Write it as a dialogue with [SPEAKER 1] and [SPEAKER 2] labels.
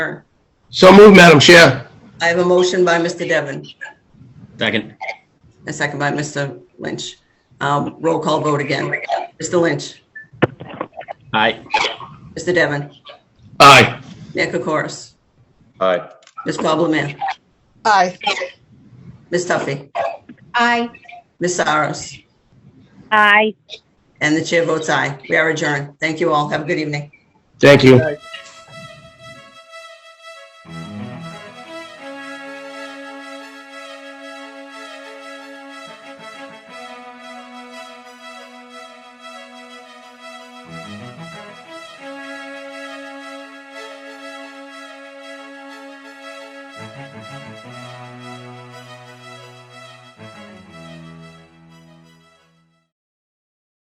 [SPEAKER 1] adjourn.
[SPEAKER 2] So moved, Madam Chair.
[SPEAKER 1] I have a motion by Mr. Devon,
[SPEAKER 3] Second.
[SPEAKER 1] a second by Mr. Lynch. Um, Roll call vote again. Mr. Lynch,
[SPEAKER 3] Aye.
[SPEAKER 1] Mr. Devon,
[SPEAKER 2] Aye.
[SPEAKER 1] Nick Okoris,
[SPEAKER 4] Aye.
[SPEAKER 1] Ms. Pablo Mare,
[SPEAKER 5] Aye.
[SPEAKER 1] Ms. Tuffy,
[SPEAKER 5] Aye.
[SPEAKER 1] Ms. Saros,
[SPEAKER 5] Aye.
[SPEAKER 1] and the chair votes aye. We are adjourned. Thank you all. Have a good evening.
[SPEAKER 2] Thank you.